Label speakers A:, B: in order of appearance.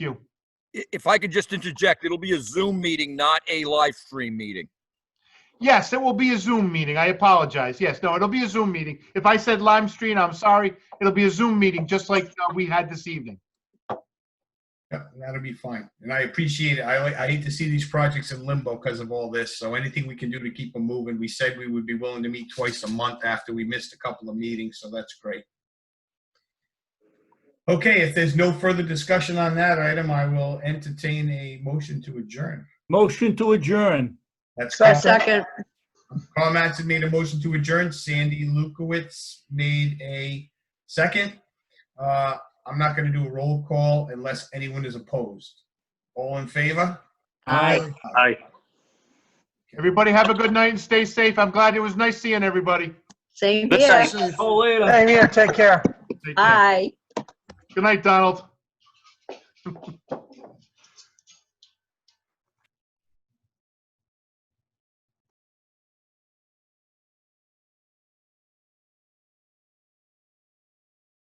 A: Q.
B: I- If I could just interject, it'll be a Zoom meeting, not a live stream meeting.
A: Yes, it will be a Zoom meeting. I apologize. Yes, no, it'll be a Zoom meeting. If I said live stream, I'm sorry. It'll be a Zoom meeting, just like uh, we had this evening.
C: Yeah, that'll be fine. And I appreciate it. I, I hate to see these projects in limbo because of all this. So anything we can do to keep them moving, we said we would be willing to meet twice a month after we missed a couple of meetings, so that's great. Okay, if there's no further discussion on that item, I will entertain a motion to adjourn.
D: Motion to adjourn.
C: That's
E: Second,
C: Carl Mattson made a motion to adjourn. Sandy Lukowitz made a second. Uh, I'm not going to do a roll call unless anyone is opposed. All in favor?
D: Aye.
F: Aye.
A: Everybody have a good night and stay safe. I'm glad it was nice seeing everybody.
E: same
F: Good
E: here.
F: night.
D: Oh, later.
G: Same here, take care.
A: Take care.
E: Aye.
A: Good night, Donald.